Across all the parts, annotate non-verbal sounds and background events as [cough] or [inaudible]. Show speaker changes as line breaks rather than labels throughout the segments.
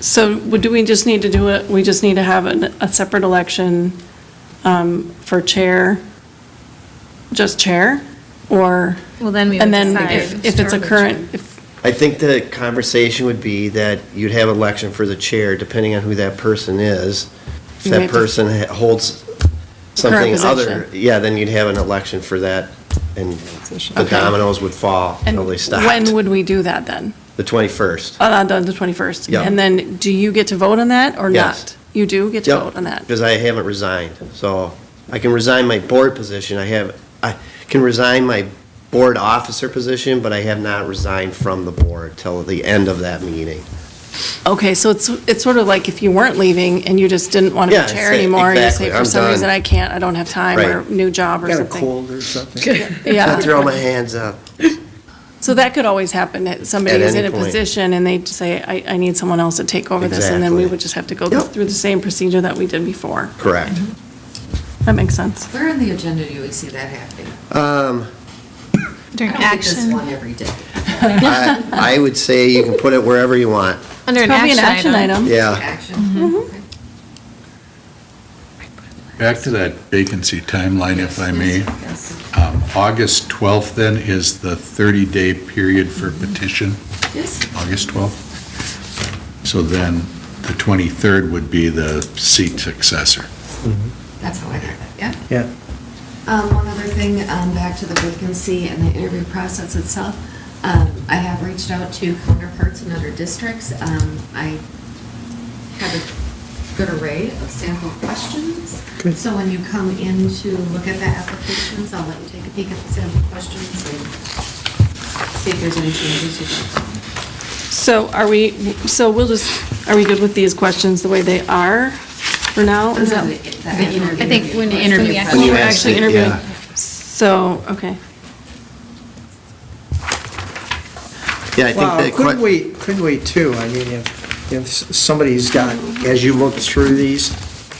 So would- do we just need to do it, we just need to have an- a separate election um, for chair, just chair? Or,
Well, then we would
and
decide.
then if if it's a
which-
current, if,
I think the conversation would be that you'd have election for the chair, depending on who that person is. If
You
that
have to-
person ha- holds something other,
position.
yeah, then you'd have an election for that, and the
Okay.
dominoes would fall
and
until they stopped.
when would we do that then?
The 21st.
Uh, The the 21st?
Yeah.
And then, do you get to vote on that or
Yes.
not? You do get to vote on that?
Because I haven't resigned, so I can resign my board position, I have, I can resign my board officer position, but I have not resigned from the board till the end of that meeting.
Okay, so it's, it's sort of like if you weren't leaving and you just didn't want to
Yeah,
be chair
say-
anymore, you
exactly,
say, for
I'm
some reason,
done."
I can't, I don't have time, or
Right.
new job or
Got a
something.
cold or [laughs] something?
I
Yeah,
throw my hands up.
so that could always happen, that somebody's
any
in a
point.
position and they just say, I, I need someone else to take over this, and then we
Exactly.
would just have to go
Yep.
through the same procedure that we did before.
Correct.
Mm-hmm. That makes sense.
Where on the agenda do we see that happening?
Um,
During
I don't think there's
action,
one every day.
I I would say you can put it wherever you want.
under an
Probably an
action item.
Yeah,
Action? Okay.
Back to that vacancy timeline, if I may.
Yes,
Um, August 12th then is the 30-day period for petition,
yes.
Uh, August 12th. So then the 23rd would be the seat successor.
That's how I got that, yeah.
Yeah.
Um, one other thing, um, back to the vacancy and the interview process itself. Um, I have reached out to counterparts in other districts. Um, I have a good array of sample questions.
Good.
So when you come in to look at the applications, I'll let you take a peek at the sample questions and see if there's any changes you'd like.
So are we, so we'll just, are we good with these questions the way they are for now? Is that-
Oh, I think when you interview.
When
Oh,
you
we're
ask
actually
it,
interviewing.
yeah.
So, okay.
yeah, I think
Well,
that.
couldn't we, couldn't we too, I mean, if, if somebody's got, as you look through these,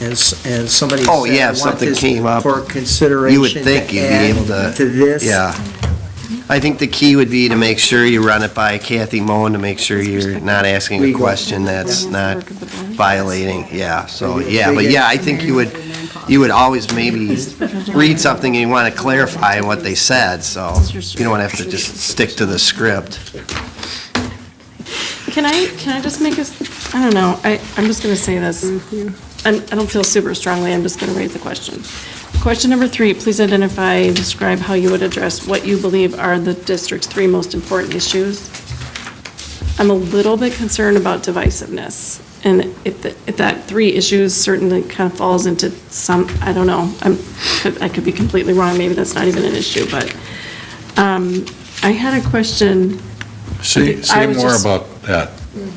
and, s- and somebody
Oh,
said,
yeah,
"I
if
want
something
this
came up,
For
You would
consideration
think
to
you'd be able to.
add to this.
Yeah. I think the key would be to make sure you run it by Kathy Moen to make sure you're not asking a
Legal.
question that's not violating, yeah, so, yeah, but
Legal.
yeah, I think you would, you would always maybe read something and you want to clarify what they said, so you don't have to just stick to the script.
Can I, can I just make a, s- I don't know, I, I'm just going to say this. I'm- I don't feel super strongly, I'm just going to raise the question. Question number three, please identify, and describe how you would address what you believe are the district's three most important issues. I'm a little bit concerned about divisiveness, and if, the- if that three issues certainly kind of falls into some, I don't know, I'm, could- I could be completely wrong, maybe that's not even an issue, but um, I had a question.
Say,
Okay, I
say
was
more
just- Mm.
about that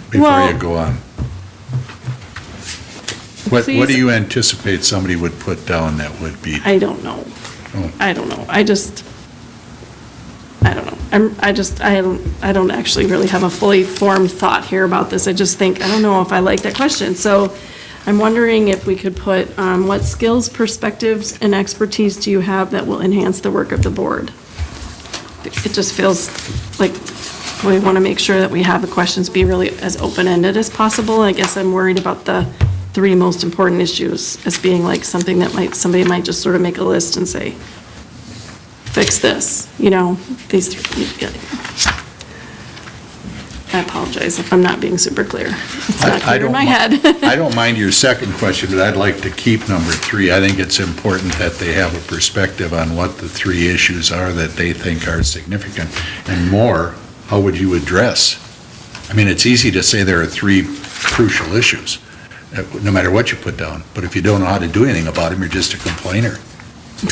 before
Well-
you go on. What, what
Please-
do you anticipate somebody would put down that would be?
I don't know.
Oh.
I don't know. I just, I don't know. I'm, I just, I don't, I don't actually really have a fully formed thought here about this. I just think, I don't know if I like that question. So I'm wondering if we could put, um, what skills, perspectives, and expertise do you have that will enhance the work of the board? It just feels like we want to make sure that we have the questions be really as open-ended as possible. I guess I'm worried about the three most important issues as being like something that might, somebody might just sort of make a list and say, fix this, you know, these, three. I apologize if I'm not being super clear. It's
I-
not
I
clear in
don't
my
mi-
head.
[laughs] I don't mind your second question, but I'd like to keep number three. I think it's important that they have a perspective on what the three issues are that they think are significant, and more, how would you address? I mean, it's easy to say there are three crucial issues, uh, no matter what you put down, but if you don't know how to do anything about them, you're just a complainer.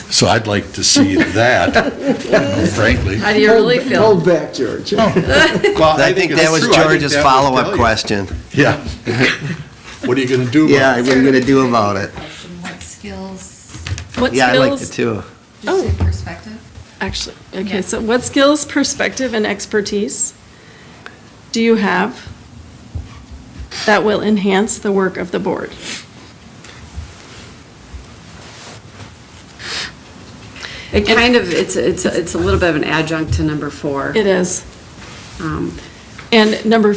So I'd like
[laughs]
to see that, you know, frankly.
How do you really feel?
Hold back, George.
Well,
I think
it's
that was
true.
George's
I think that would tell
follow-up
you.
question. [laughs]
Yeah. What are you going to do about it?
Yeah, what are you going to do about it?
Question, What skills,
[laughs] What
Yeah, I like it
skills,
too.
Oh.
just in perspective?
actually, okay, so what skills, perspective, and expertise do you have that will enhance the work of the board?
It kind of, it's, it's, it's a little bit of an adjunct to number four.
It is.
Um,
And number